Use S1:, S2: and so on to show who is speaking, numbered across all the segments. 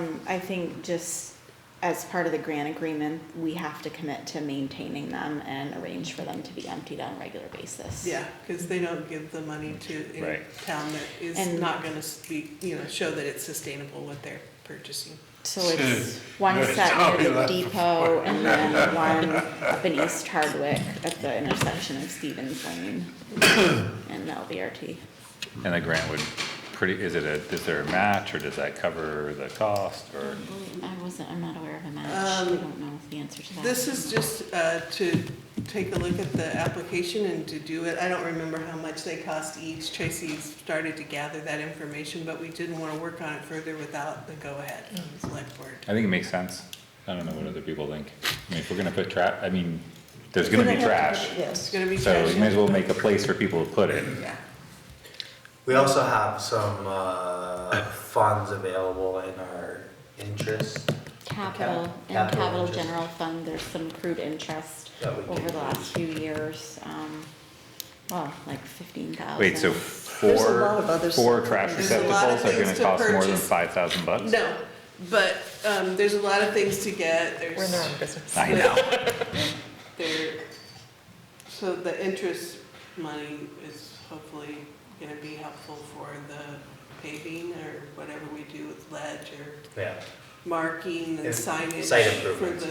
S1: Um, I think just as part of the grant agreement, we have to commit to maintaining them and arrange for them to be emptied on a regular basis.
S2: Yeah, because they don't give the money to any
S3: Right.
S2: town that is
S1: And-
S2: not gonna be, you know, show that it's sustainable what they're purchasing.
S1: So it's one set
S4: Sorry,
S1: near the
S4: that's-
S1: depot and then one up in East Hardwick at the intersection of Stevens Lane and LVRT.
S3: And the grant would pretty, is it a, is there a match or does that cover the cost or?
S1: I wasn't, I'm not aware of a match. We
S2: Um,
S1: don't know the answer to that.
S2: This is just uh, to take a look at the application and to do it. I don't remember how much they cost each. Tracy started to gather that information, but we didn't want to work on it further without the go-ahead of the select board.
S3: I think it makes sense. I don't know what other people think. I mean, if we're gonna put trash, I mean, there's gonna be trash.
S2: It's gonna be
S3: So we may as
S2: trash.
S3: well make a place for people to put it.
S2: Yeah.
S5: We also have some uh, funds available in our interest.
S1: Capital, in
S5: Capital
S1: capital
S5: interest.
S1: general fund, there's some accrued interest
S5: That we
S1: over
S5: can
S1: the last
S5: use.
S1: few years, um, well, like fifteen thousand.
S3: Wait, so
S6: There's a lot of
S3: four,
S6: other
S3: four
S6: stuff.
S3: trash
S2: There's a lot of
S3: receptacles are
S2: things
S3: gonna
S2: to
S3: cost more than
S2: purchase.
S3: five thousand bucks?
S2: No, but um, there's a lot of things to get. There's,
S6: business.
S3: I know.
S2: there, so the interest money is hopefully gonna be helpful for the paving or whatever we do with ledge or
S5: Yeah.
S2: marking and
S5: And
S2: signage
S5: site
S2: for
S5: improvements.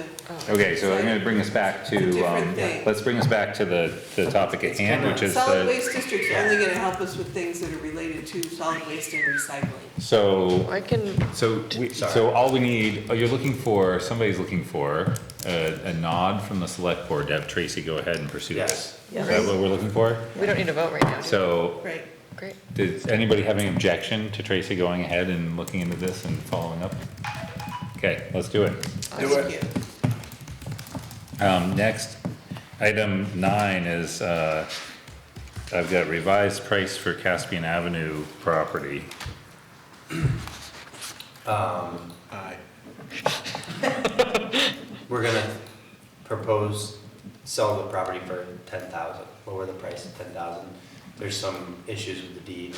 S2: the,
S3: Okay, so I'm gonna bring us back to, um,
S2: Different thing.
S3: let's bring us back to the, the topic at hand, which is
S2: solid
S3: the,
S2: waste district's only gonna help us with things that are related to solid waste and recycling.
S3: so,
S6: I can,
S3: so, we- so all we need, oh, you're looking for, somebody's looking for a, a nod from the select board to have Tracy go ahead and pursue this.
S6: Yes.
S3: Is that what we're looking for?
S6: we don't need to vote right now. do we?
S3: So,
S2: Right.
S6: Great.
S3: does anybody have any objection to Tracy going ahead and looking into this and following up? Okay, let's do it.
S2: Do it.
S3: Um, next, item nine is, uh, I've got revised price for Caspian Avenue property.
S4: Aye.
S5: We're gonna propose, sell the property for ten thousand, lower the price to ten thousand. There's some issues with the deed.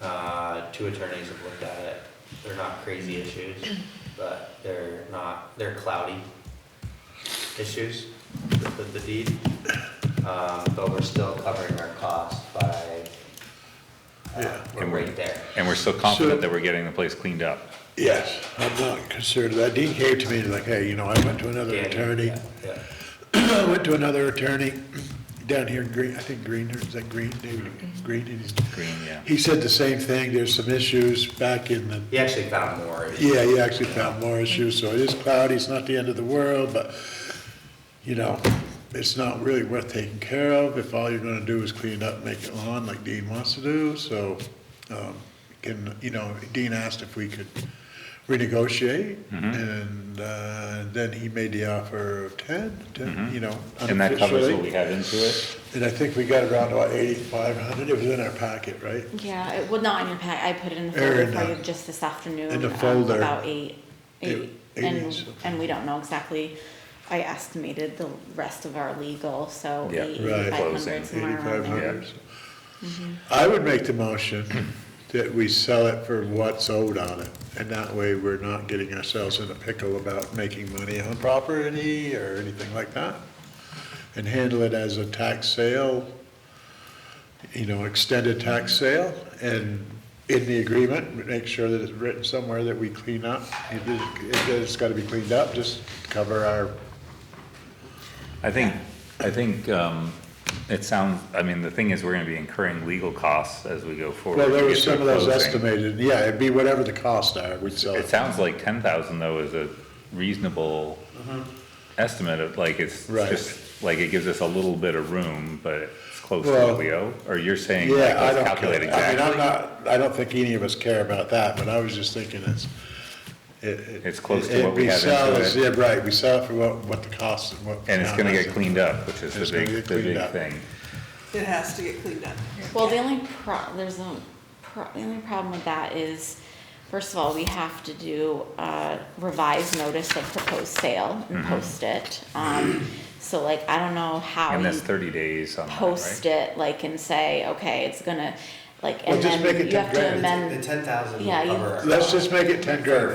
S5: Uh, two attorneys have looked at it. They're not crazy issues, but they're not, they're cloudy issues with the deed. Um, but we're still covering our costs by, uh,
S4: Yeah.
S5: we're right there.
S3: And we're still confident that we're getting the place cleaned up.
S4: Yes, I'm not concerned, that deed came to me like, hey, you know, I went to another
S5: Yeah,
S4: attorney,
S5: yeah, yeah.
S4: I went to another attorney down here in Green, I think Green, is that Green, David,
S5: Mm-hmm.
S4: Green? He's-
S3: Green, yeah.
S4: He said the same thing, there's some issues back in the,
S5: He actually found more.
S4: yeah, he actually found more issues, so it is cloudy, it's not the end of the world, but, you know, it's not really worth taking care of if all you're gonna do is clean it up, make it lawn like Dean wants to do, so, um, can, you know, Dean asked if we could renegotiate,
S3: Mm-hmm.
S4: and, uh, then he made the offer of ten, ten, you know,
S3: Mm-hmm. And that covers what
S4: unofficially.
S3: we have into it.
S4: And I think we got around about eighty-five hundred, it was in our packet, right?
S1: Yeah, it, well, not in your pack, I put it in the
S4: Or
S1: folder
S4: in
S1: for you
S4: the-
S1: just this afternoon.
S4: in the
S1: um,
S4: folder.
S1: About eight, eight,
S4: Eight- eight is
S1: and,
S4: okay.
S1: and we don't know exactly, I estimated the rest of our legal, so
S3: Yeah.
S1: eight,
S4: Right.
S1: eighty-five
S3: Closing.
S1: hundred, somewhere around
S4: Eighty-five
S1: there. Mm-hmm.
S4: hundred. I would make the motion that we sell it for what's owed on it, and that way we're not getting ourselves in a pickle about making money on property or anything like that. And handle it as a tax sale, you know, extended tax sale, and in the agreement, make sure that it's written somewhere that we clean up. It is, it has gotta be cleaned up, just cover our,
S3: I think, I think, um, it sounds, I mean, the thing is, we're gonna be incurring legal costs as we go forward.
S4: well, there
S3: to get
S4: was
S3: to
S4: some of
S3: a
S4: those
S3: closing.
S4: estimated, yeah, it'd be whatever the costs are, we'd sell
S3: It
S4: it.
S3: sounds like ten thousand though is a reasonable estimate of, like, it's
S4: Mm-hmm. Right.
S3: just, like, it gives us a little bit of room, but it's close to
S4: Well,
S3: what we owe? Or you're saying, like,
S4: Yeah, I
S3: let's
S4: don't
S3: calculate
S4: care. I mean,
S3: exactly?
S4: I'm not, I don't think any of us care about that, but I was just thinking it's, it, it.
S3: It's close to what we have
S4: sell
S3: into
S4: is-
S3: it.
S4: Yeah, right, we sell it for what, what the cost and what.
S3: And it's gonna get
S4: how much.
S3: cleaned up, which is
S4: It's
S3: the
S4: gonna
S3: big,
S4: get
S3: the
S4: cleaned
S3: big
S4: up.
S3: thing.
S2: It has to get cleaned up.
S1: Well, the only pro, there's a, pro, the only problem with that is, first of all, we have to do a revised notice of proposed sale
S3: Mm-hmm.
S1: and post it. Um, so like, I don't know how
S3: And
S1: you
S3: that's thirty days on that,
S1: post
S3: right?
S1: it, like, and say, okay, it's gonna, like,
S4: Well,
S1: and
S4: just make
S1: then
S4: it
S1: you have to
S4: temporary.
S1: amend.
S5: The ten thousand will
S1: Yeah, you-
S5: cover our.
S4: Let's just make it ten grand.